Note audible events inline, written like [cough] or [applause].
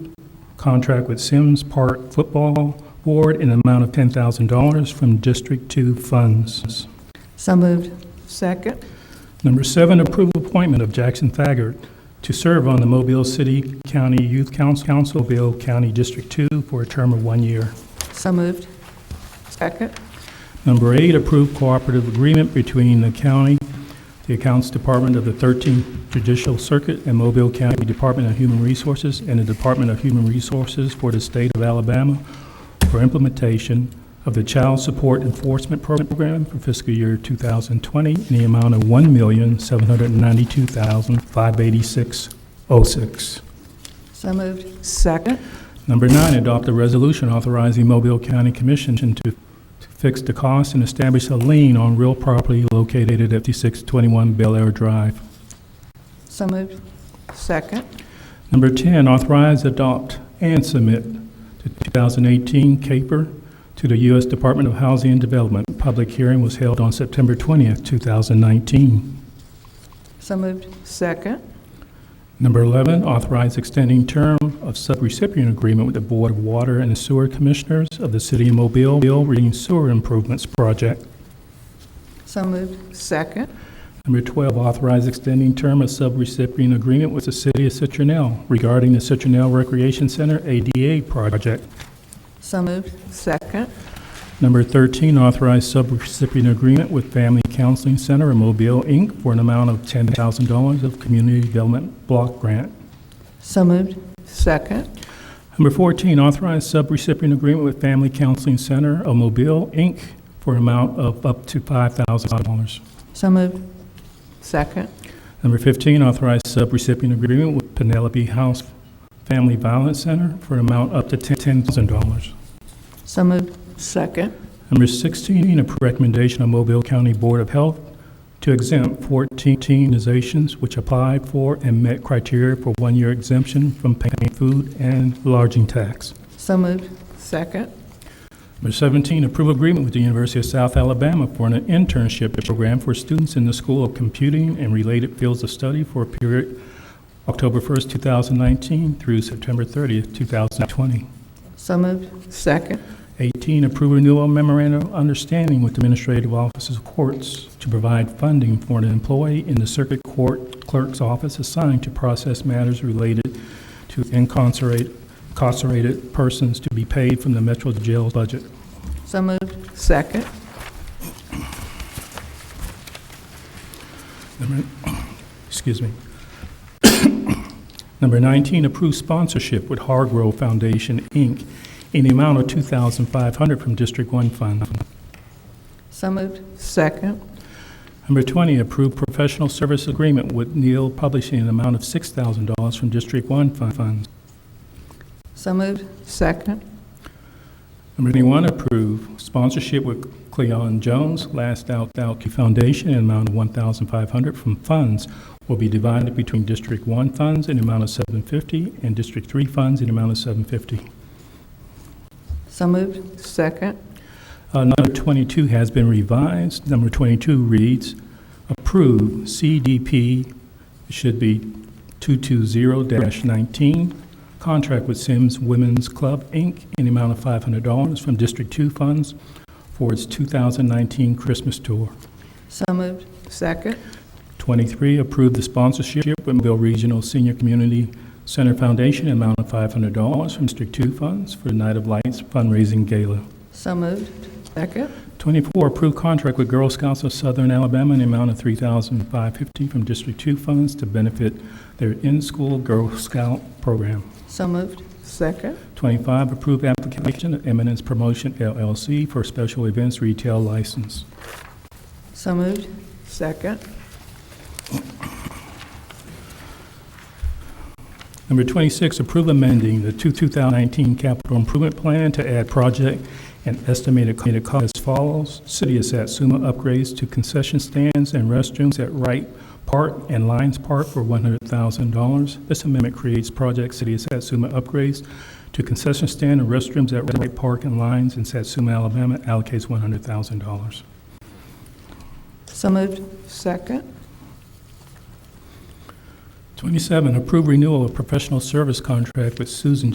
contract with Sims Park Football Board in the amount of $10,000 from District 2 funds. So moved. Second. Number seven, approve appointment of Jackson Thaggart to serve on the Mobile City County Youth Council, Councilville County District 2, for a term of one year. So moved. Second. Number eight, approve cooperative agreement between the county, the Accounts Department of the 13th Judicial Circuit, and Mobile County Department of Human Resources and the Department of Human Resources for the state of Alabama for implementation of the Child Support Enforcement Program for fiscal year 2020 in the amount of $1,792,586.06. So moved. Second. Number nine, adopt a resolution authorizing Mobile County Commission to to fix the cost and establish a lien on real property located at 5621 Bel Air Drive. So moved. Second. Number 10, authorize, adopt, and submit the 2018 CAPER to the U.S. Department of Housing and Development. Public hearing was held on September 20th, 2019. So moved. Second. Number 11, authorize extending term of subrecipient agreement with the Board of Water and Sewer Commissioners of the City of Mobile, Bill Reading Sewer Improvements Project. So moved. Second. Number 12, authorize extending term of subrecipient agreement with the City of Citronelle regarding the Citronelle Recreation Center ADA project. So moved. Second. Number 13, authorize subrecipient agreement with Family Counseling Center of Mobile, Inc. for an amount of $10,000 of Community Development Block Grant. So moved. Second. Number 14, authorize subrecipient agreement with Family Counseling Center of Mobile, Inc. for an amount of up to $5,000. So moved. Second. Number 15, authorize subrecipient agreement with Penelope House Family Violence Center for an amount up to $10,000. So moved. Second. Number 16, a recommendation of Mobile County Board of Health to exempt 14 organizations which applied for and met criteria for one-year exemption from paying food and lodging tax. So moved. Second. Number 17, approve agreement with the University of South Alabama for an internship program for students in the School of Computing and related fields of study for a period October 1st, 2019 through September 30th, 2020. So moved. Second. 18, approve renewal memorandum of understanding with Administrative Offices of Courts to provide funding for an employee in the Circuit Court Clerk's Office assigned to process matters related to incarcerate- incarcerated persons to be paid from the Metro Jail budget. So moved. Second. Number- [coughs] Excuse me. Number 19, approve sponsorship with Hargrove Foundation, Inc., in the amount of 2500 from District 1 Fund. So moved. Second. Number 20, approve professional service agreement with Neil Publishing in the amount of $6,000 from District 1 Fund Funds. So moved. Second. Number 21, approve sponsorship with Cleon Jones, Last Out Thou Foundation, in the amount of $1,500 from funds will be divided between District 1 funds in the amount of 750 and District 3 funds in the amount of 750. So moved. Second. Uh, Number 22 has been revised. Number 22 reads, approve CDP, it should be 220-19, contract with Sims Women's Club, Inc., in the amount of $500 from District 2 funds for its 2019 Christmas tour. So moved. Second. 23, approve the sponsorship with Bill Regional Senior Community Center Foundation, in the amount of $500 from District 2 funds for Night of Lights fundraising gala. So moved. Second. 24, approved contract with Girl Scouts of Southern Alabama in the amount of $3,550 from District 2 funds to benefit their in-school Girl Scout program. So moved. Second. 25, approved application of Eminence Promotion LLC for special events retail license. So moved. Second. Number 26, approve amending the 2019 capital improvement plan to add project and estimated cost as follows. City of Satsuma upgrades to concession stands and restrooms at Wright Park and Lions Park for $100,000. This amendment creates project City of Satsuma upgrades to concession stand and restrooms at Wright Park and Lions in Satsuma, Alabama, allocates $100,000. So moved. Second. 27, approve renewal of professional service contract with Susan